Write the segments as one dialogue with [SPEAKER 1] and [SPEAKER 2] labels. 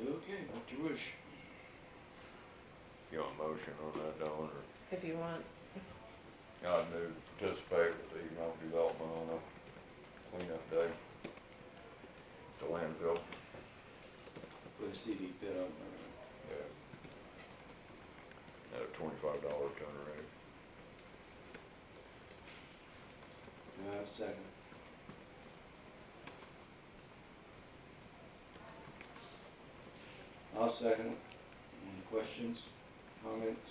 [SPEAKER 1] Okay, what you wish.
[SPEAKER 2] You want a motion on that, Dawn, or?
[SPEAKER 3] if you want.
[SPEAKER 2] I do participate with the economic development on a cleanup day. The landfill.
[SPEAKER 1] For the CD pit up there.
[SPEAKER 2] Yeah. At a twenty-five dollar ton rate.
[SPEAKER 1] All right, second. I'll second it. Any questions, comments?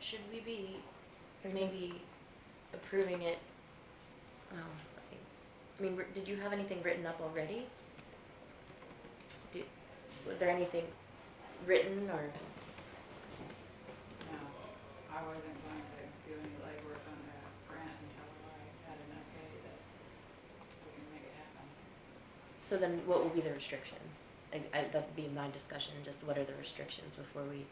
[SPEAKER 4] Should we be
[SPEAKER 3] Mhm.
[SPEAKER 4] maybe approving it? Um, I mean, were- did you have anything written up already? Do- Was there anything written or,
[SPEAKER 5] No, I wasn't going to do any legwork on the grant until I had an okay that we can make it happen.
[SPEAKER 4] so then what will be the restrictions? I, I, that'd be my discussion, just what are the restrictions before we?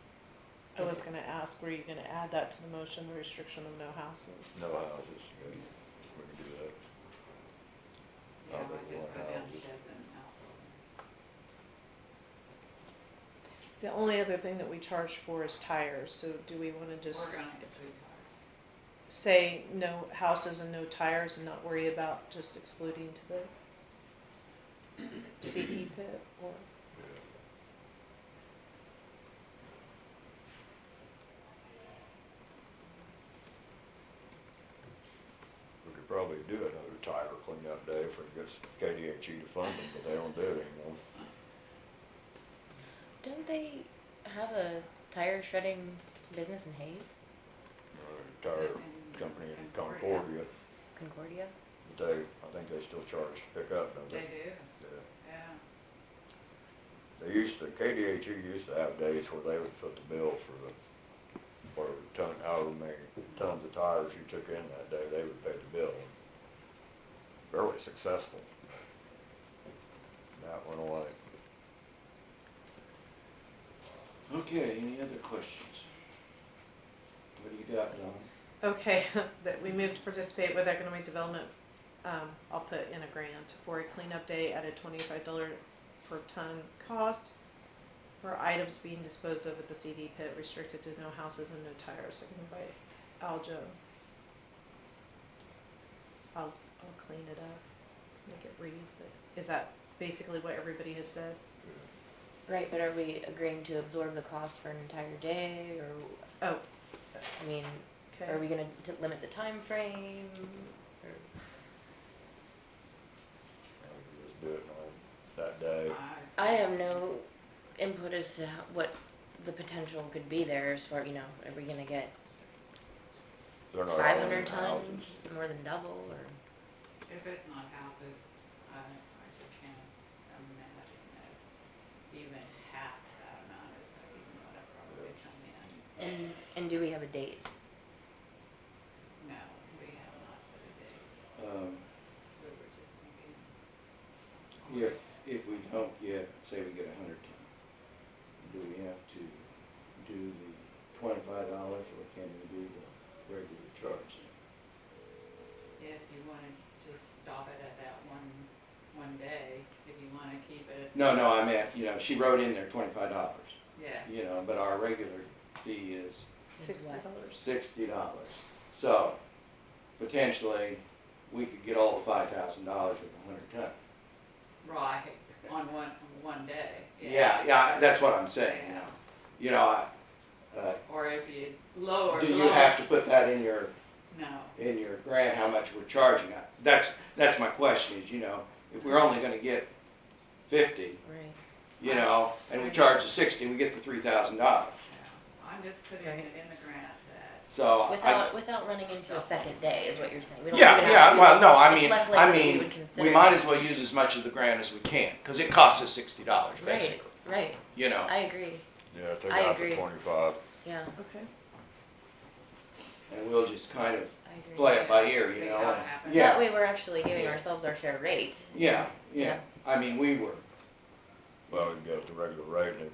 [SPEAKER 3] I was gonna ask, were you gonna add that to the motion, the restriction of no houses?
[SPEAKER 2] No houses, yeah, we can do that.
[SPEAKER 5] Yeah,
[SPEAKER 2] Oh,
[SPEAKER 5] I
[SPEAKER 2] but
[SPEAKER 5] just
[SPEAKER 2] what
[SPEAKER 5] put down
[SPEAKER 2] houses?
[SPEAKER 5] sheds and out.
[SPEAKER 3] The only other thing that we charge for is tires, so do we wanna just
[SPEAKER 5] Organized sweetheart.
[SPEAKER 3] say no houses and no tires and not worry about just excluding to the CE pit or?
[SPEAKER 2] Yeah. We could probably do another tire cleanup day if we get KDHE E to fund it, but they don't do it anymore.
[SPEAKER 4] Don't they have a tire shredding business in Hayes,
[SPEAKER 2] uh, tire company in Concordia,
[SPEAKER 4] Concordia?
[SPEAKER 2] but they, I think they still charge pickup, don't
[SPEAKER 5] They
[SPEAKER 2] they?
[SPEAKER 5] do,
[SPEAKER 2] Yeah.
[SPEAKER 5] yeah.
[SPEAKER 2] They used to, KDHE used to have days where they would put the bill for the, for a ton, however many tons of tires you took in that day, they would pay the bill. Fairly successful. That went away.
[SPEAKER 1] Okay, any other questions? What do you got, Don?
[SPEAKER 3] Okay, that we move to participate with economic development, um, I'll put in a grant for a cleanup day at a twenty-five dollar per ton cost for items being disposed of at the CD pit restricted to no houses and no tires, seconded by Aljo. I'll, I'll clean it up, make it read, but is that basically what everybody has said?
[SPEAKER 4] Right, but are we agreeing to absorb the cost for an entire day or,
[SPEAKER 3] Oh,
[SPEAKER 4] I mean,
[SPEAKER 3] okay.
[SPEAKER 4] Are we gonna t- limit the time frame?
[SPEAKER 2] I think we just do it on that day.
[SPEAKER 4] I have no input as to how- what the potential could be there as far, you know, are we gonna get
[SPEAKER 2] They're not all
[SPEAKER 4] five
[SPEAKER 2] in
[SPEAKER 4] hundred
[SPEAKER 2] the houses.
[SPEAKER 4] tons, more than double, or?
[SPEAKER 5] If it's not houses, I, I just can't imagine that even half that amount is even what I probably come in.
[SPEAKER 4] And, and do we have a date?
[SPEAKER 5] No, we have not set a date.
[SPEAKER 1] Um,
[SPEAKER 5] We were just thinking.
[SPEAKER 1] If, if we don't get, say we get a hundred ton, do we have to do the twenty-five dollars or can we do the regular charge?
[SPEAKER 5] If you wanna just stop it at that one, one day, if you wanna keep it,
[SPEAKER 1] No, no, I meant, you know, she wrote in there twenty-five dollars,
[SPEAKER 5] yes.
[SPEAKER 1] you know, but our regular fee is
[SPEAKER 3] Sixty dollars.
[SPEAKER 1] sixty dollars. So potentially, we could get all the five thousand dollars with a hundred ton.
[SPEAKER 5] Right, on one, one day.
[SPEAKER 1] Yeah, yeah, that's what I'm saying, you know. You know, I, uh,
[SPEAKER 5] Or if you lower.
[SPEAKER 1] do you
[SPEAKER 5] lower-
[SPEAKER 1] have to put that in your
[SPEAKER 5] No,
[SPEAKER 1] in your grant how much we're charging. I- That's, that's my question is, you know, if we're only gonna get fifty,
[SPEAKER 4] Right.
[SPEAKER 1] you know, and we charge the sixty, we get the three thousand dollars.
[SPEAKER 5] no, I'm just putting it in the grant that
[SPEAKER 1] So I,
[SPEAKER 4] Without, without running into a second day is what you're saying? We don't
[SPEAKER 1] yeah,
[SPEAKER 4] even have
[SPEAKER 1] yeah,
[SPEAKER 4] to-
[SPEAKER 1] well, no, I
[SPEAKER 4] it's
[SPEAKER 1] mean,
[SPEAKER 4] less
[SPEAKER 1] I
[SPEAKER 4] likely we
[SPEAKER 1] mean,
[SPEAKER 4] would
[SPEAKER 1] we
[SPEAKER 4] consider
[SPEAKER 1] might
[SPEAKER 4] it.
[SPEAKER 1] as well use as much of the grant as we can, cause it costs us sixty dollars
[SPEAKER 4] Right,
[SPEAKER 1] basically,
[SPEAKER 4] right,
[SPEAKER 1] you know,
[SPEAKER 4] I agree,
[SPEAKER 2] Yeah, take
[SPEAKER 4] I
[SPEAKER 2] out the
[SPEAKER 4] agree.
[SPEAKER 2] twenty-five.
[SPEAKER 4] yeah,
[SPEAKER 3] Okay.
[SPEAKER 1] and we'll just kind of
[SPEAKER 4] I agree.
[SPEAKER 1] play it by ear, you
[SPEAKER 5] See
[SPEAKER 1] know.
[SPEAKER 5] how it
[SPEAKER 1] and-
[SPEAKER 5] happens.
[SPEAKER 4] That
[SPEAKER 1] Yeah,
[SPEAKER 4] way, we're actually giving
[SPEAKER 1] Yeah.
[SPEAKER 4] ourselves our fair rate.
[SPEAKER 1] yeah, yeah.
[SPEAKER 4] Yeah.
[SPEAKER 1] I mean, we were,
[SPEAKER 2] Well, we can get the regular rate and